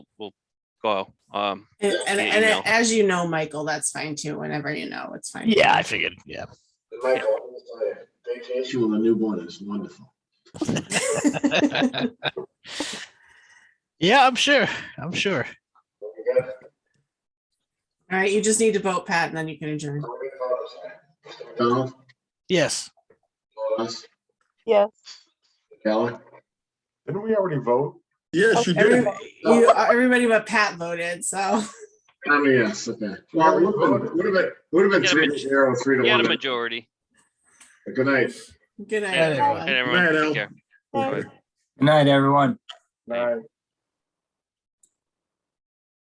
will go. Um, And, and, Yeah, and email. as you know, Michael, that's fine too. Whenever you know, it's fine. Yeah, I figured. Yeah. And my problem is uh, vacation with a newborn is wonderful. Yeah, I'm sure. I'm sure. You guys, All right, you just need to vote Pat and then you can adjourn. don't be honest. Mr. McDonald, Yes. us, Yes. Keller, Didn't we already vote? Yes, you did. Everybody, you, everybody but Pat voted, so. I mean, Oh, yes, okay. Well, it would have been, would have been Yeah, three but- to zero, three to you had a one. majority. Good night. Good night. Yeah, everyone. everyone. And everyone, Night, take Al. care. Thanks. Bye. Good night, everyone. Right.